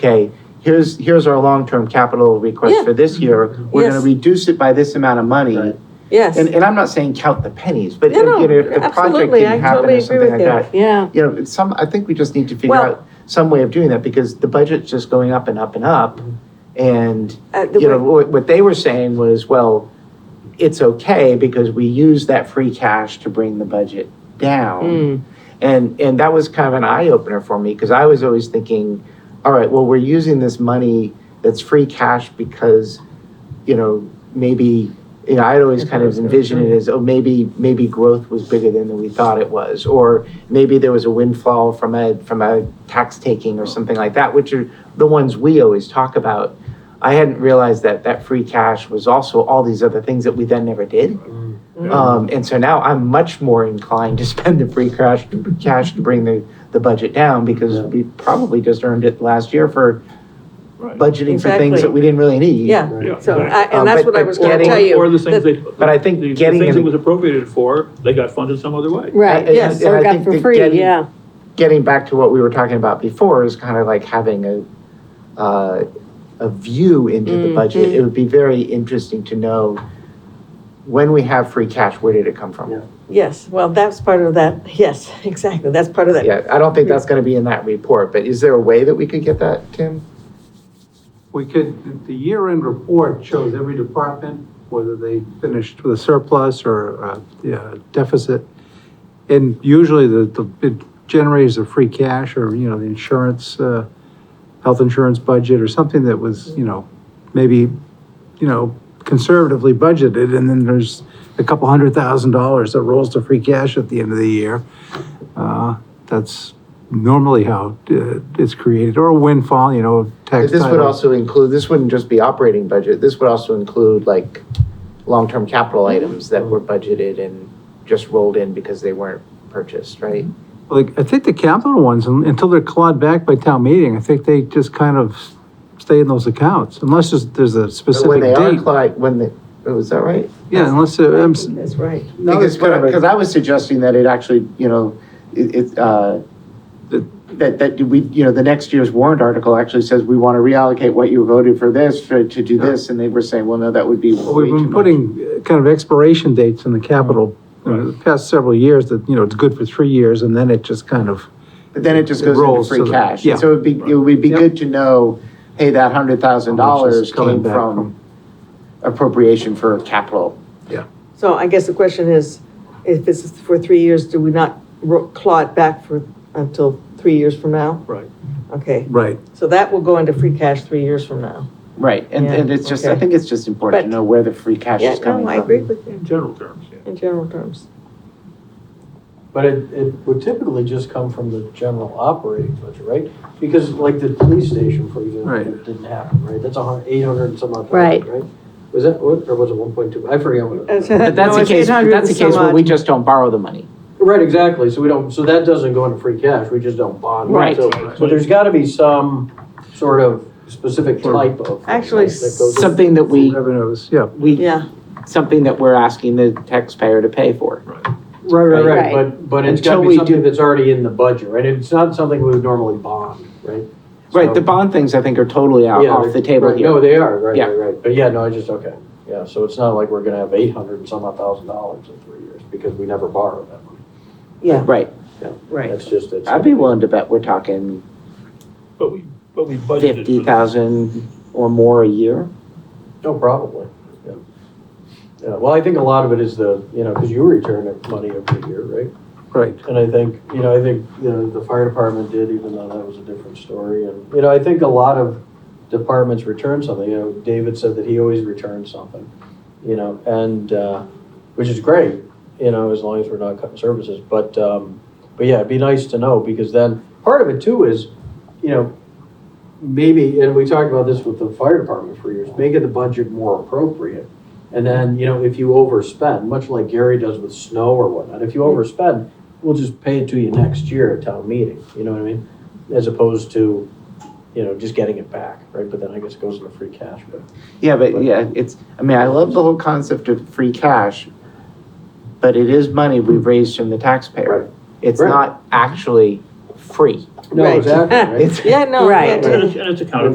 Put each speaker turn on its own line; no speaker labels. okay, here's, here's our long-term capital request
Yeah.
for this year. We're gonna
Yes.
reduce it by this amount of money.
Right.
Yes.
And, and I'm not saying count the pennies, but you
No,
know,
no,
if the project
absolutely, I
didn't happen
totally
or
agree
something
with
like that.
you, yeah.
You know, it's some, I think we just need to figure
Well-
out some way of doing that because the budget's just going up and up and up. And
Uh, the
you know,
way-
what, what they were saying was, well, it's okay because we use that free cash to bring the budget down.
Mm,
And, and that was kind of an eye opener for me because I was always thinking, all right, well, we're using this money that's free cash because, you know, maybe, you know, I'd always kind of envisioned it as, oh, maybe, maybe growth was bigger than we thought it was. Or maybe there was a windfall from a, from a tax taking or something like that, which are the ones we always talk about. I hadn't realized that that free cash was also all these other things that we then never did. Um, and so now I'm much more inclined to spend the free cash, cash to bring the, the budget down because
Yeah.
we probably just earned it last year for
Right.
budgeting for things
Exactly.
that we didn't really need.
Yeah,
Yeah.
Mm. so, I-
Um,
and that's
but-
what I
but
was gonna
getting-
tell you.
Or the
that-
things they.
But I think
the- the
getting
Things
an-
it was appropriated for, they got funded some other way.
Right,
I- I-
yes,
uh, I
or got
think
for
that
free,
getting-
yeah.
Getting back to what we were talking about before is kind of like having a, uh, a view into the
Mm-hmm.
budget. It would be very interesting to know when we have free cash, where did it come
Yeah.
from?
Yes, well, that's part of that, yes, exactly, that's part of that.
Yeah, I don't think
Mm-hmm.
that's gonna be in that report, but is there a way that we could get that, Tim?
We could, the year-end report shows every department, whether they finished with a surplus or a yeah, deficit. And usually the, the, it generates the free cash or, you know, the insurance, uh, health insurance budget or something that was, you know, maybe, you know, conservatively budgeted, and then there's a couple hundred thousand dollars that rolls to free cash at the end of the year. Uh, That's normally how uh, it's created, or a windfall, you know,
But
tax
This would
title.
also include, this wouldn't just be operating budget, this would also include like long-term capital items that were budgeted and just rolled in because they weren't purchased, right?
Mm-hmm. Like, I think the capital ones, un- until they're clawed back by town meeting, I think they just kind of stay in those accounts, unless there's, there's a
But When
specific
they are,
date.
cli- when the, oh, is that right?
Yeah, unless, uh, I'm, s-
That's right.
No,
Because,
it's whatever.
because I was suggesting that it actually, you know, it, it, uh, that, that we, you know, the next year's warrant article actually says we want to reallocate what you voted for this, for, to do this, and they were saying, well, no, that would be
Well,
way
We've
too
been
much.
putting uh, kind of expiration dates in the capital, you know, the past several years that, you know, it's good for three years and then it just kind of,
But then it just
It
goes into
rolls to
free
the-
cash.
yeah.
So it'd be, it would be
Yep.
good to know, hey, that hundred thousand
How much is
dollars
coming
came
back
from appropriation for capital.
So I guess the question is, if this is for three years, do we not ro- claw it back for, until three years from now?
Right.
Okay,
right.
so that will go into free cash three years from now.
Right, and,
Yeah,
and it's just, I
okay.
think it's just important to
But-
know where the free cash
Yeah,
is coming
no, I
from.
agree with you,
In general terms, yeah.
in general terms.
But it, it would typically just come from the general operating budget, right? Because like the police station, for example,
Right.
it didn't happen, right? That's a hun, eight hundred and some odd
Right.
thousand, right? Was that, what- or was it one point two? I forget what it was.
But that's a case, that's a case where we just don't borrow the money.
Right, exactly. So we don't, so that doesn't go into free cash. We just don't bond. it.
Right.
So so there's gotta be some sort of specific type of.
Actually,
that goes in.
Something that we,
Revenues, yeah.
we,
Yeah,
something that we're asking the taxpayer to pay for.
Right, right,
Right.
right. But, but it's gotta
Until
be
we
something
do-
that's already in the budget, right? It's not something we would normally bond, right?
Right,
So-
the bond things, I think, are totally out,
Yeah,
off the table
right, No,
here.
they are, right,
Yeah.
right, right. But yeah, no, I just, okay. Yeah, so it's not like we're gonna have eight hundred and some odd thousand dollars in three years because we never borrow that money.
yeah,
Right,
right.
That's just, it's.
I'd be willing to bet we're talking
But we, but we budgeted. for
fifty thousand or more a year.
No, probably, yeah. Yeah, well, I think a lot of it is the, you know, because you return it money every year, right?
Right.
And I think, you know, I think, you know, the fire department did, even though that was a different story. And, you know, I think a lot of departments return something, you know, David said that he always returns something, you know, and, uh, which is great, you know, as long as we're not cutting services. But, um, but yeah, it'd be nice to know because then part of it too is, you know, maybe, and we talked about this with the fire department for years, make it the budget more appropriate. And then, you know, if you overspend, much like Gary does with snow or whatnot, if you overspend, we'll just pay it to you next year at town meeting, you know what I mean? As opposed to, you know, just getting it back, right? But then I guess it goes into free cash, but.
Yeah, but yeah, it's, I mean, I love the whole concept of free cash, but it is money we've raised from the taxpayer.
Right.
It's
Right.
not actually free.
No,
Right.
exactly, right?
It's-
Yeah, no. yeah,
Right.
And it's, and it's accounted